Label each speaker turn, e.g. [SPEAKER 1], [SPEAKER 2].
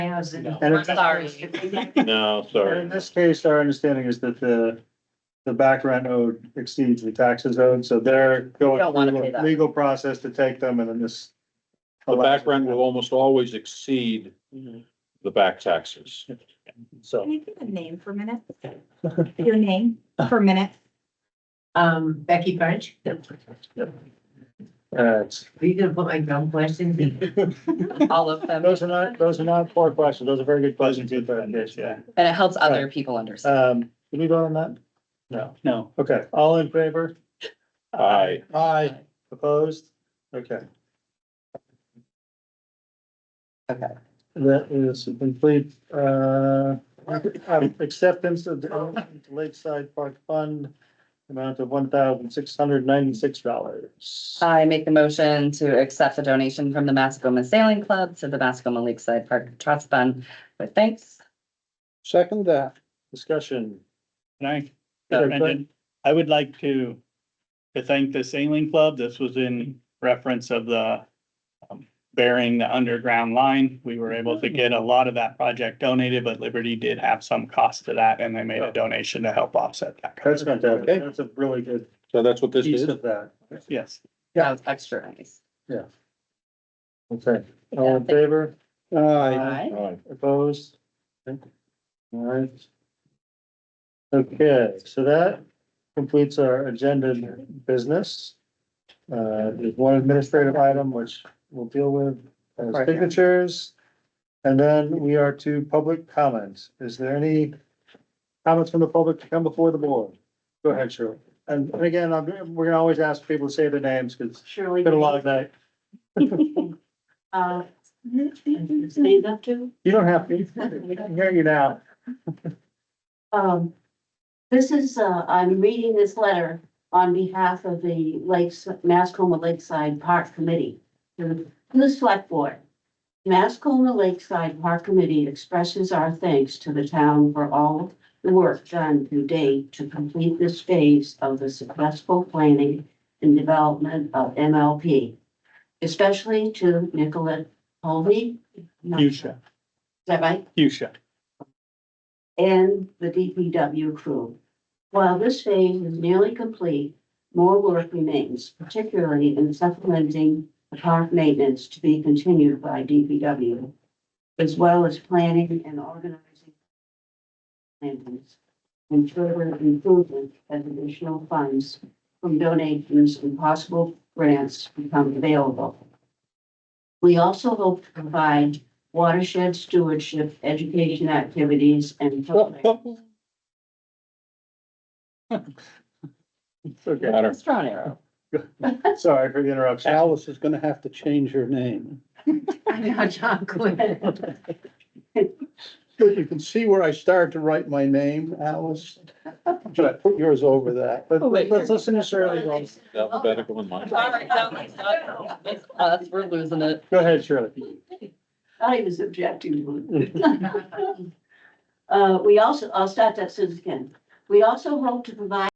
[SPEAKER 1] doesn't.
[SPEAKER 2] No.
[SPEAKER 3] And it's-
[SPEAKER 4] No, sorry.
[SPEAKER 3] In this case, our understanding is that the, the back rent owed exceeds the taxes owed, so they're
[SPEAKER 1] Don't
[SPEAKER 3] going
[SPEAKER 1] wanna pay
[SPEAKER 3] through a
[SPEAKER 1] that.
[SPEAKER 3] legal process to take them and then this.
[SPEAKER 4] The back rent will almost always exceed the back taxes.
[SPEAKER 2] So,
[SPEAKER 5] Can you give a name for a minute? Your name for a minute?
[SPEAKER 1] Um, Becky French,
[SPEAKER 3] Uh, it's-
[SPEAKER 1] are you gonna put my dumb questions in? All of them,
[SPEAKER 3] Those are not, those are not poor questions. Those are very good questions. Good clarification, yeah.
[SPEAKER 6] And it helps other people understand.
[SPEAKER 3] Um, did we vote on that? No.
[SPEAKER 2] no,
[SPEAKER 3] Okay, all in favor?
[SPEAKER 4] Aye.
[SPEAKER 3] Aye. Opposed? Okay.
[SPEAKER 6] Okay.
[SPEAKER 3] That is a complete, uh, um, acceptance of the Lakeside Park Fund, amount of one thousand six hundred ninety-six dollars.
[SPEAKER 6] I make the motion to accept the donation from the Mascoma Sailing Club to the Mascoma Lakeside Park Trust Fund with thanks.
[SPEAKER 3] Second that. Discussion.
[SPEAKER 2] can
[SPEAKER 3] Sure,
[SPEAKER 2] I? and
[SPEAKER 3] go
[SPEAKER 2] then
[SPEAKER 3] ahead.
[SPEAKER 2] I would like to, to thank the sailing club. This was in reference of the um, burying the underground line. We were able to get a lot of that project donated, but Liberty did have some cost to that and they made a donation to help offset that.
[SPEAKER 3] That's fantastic. That's a really good
[SPEAKER 4] So that's what this
[SPEAKER 3] piece
[SPEAKER 4] is.
[SPEAKER 3] of that.
[SPEAKER 2] Yes.
[SPEAKER 6] That was extra nice.
[SPEAKER 3] Okay, all in favor?
[SPEAKER 6] Aye.
[SPEAKER 4] Aye.
[SPEAKER 3] Opposed? All right. Okay, so that completes our agenda business. Uh, there's one administrative item which we'll deal with as
[SPEAKER 6] Right.
[SPEAKER 3] signatures. And then we are to public comments. Is there any comments from the public to come before the board? Go ahead, Shirley. And and again, I'm, we're gonna always ask people to say their names because
[SPEAKER 5] Surely.
[SPEAKER 3] it's been a lot of that.
[SPEAKER 5] Uh, stand up to.
[SPEAKER 3] You don't have to, we can hear you now.
[SPEAKER 5] Um, this is, uh, I'm reading this letter on behalf of the Lakes, Mascoma Lakeside Park Committee. To the select board. Mascoma Lakeside Park Committee expresses our thanks to the town for all the work done to date to complete this phase of the successful planning and development of MLP. Especially to Nicolette Holby. Is
[SPEAKER 2] Fuchsia,
[SPEAKER 5] that right?
[SPEAKER 2] fuchsia.
[SPEAKER 5] and the DPW crew. While this phase is nearly complete, more work remains, particularly in supplementing the park maintenance to be continued by DPW, as well as planning and organizing plans and further improvement as additional funds from donations and possible grants become available. We also hope to provide watershed stewardship, education activities, and programs.
[SPEAKER 3] It's okay.
[SPEAKER 4] Matter.
[SPEAKER 6] Strong arrow.
[SPEAKER 3] Sorry for the interruption.
[SPEAKER 7] Alice is gonna have to change her name.
[SPEAKER 1] I know, John Quinn.
[SPEAKER 7] But you can see where I started to write my name, Alice. Just put yours over that.
[SPEAKER 3] But
[SPEAKER 6] Oh, wait.
[SPEAKER 3] let's listen to Shirley. Go
[SPEAKER 4] Alphabetical in mind.
[SPEAKER 6] Sorry, that was us. It's us, we're losing it.
[SPEAKER 3] go ahead, Shirley.
[SPEAKER 5] I was objecting to it. Uh, we also, I'll start that sentence again. We also hope to provide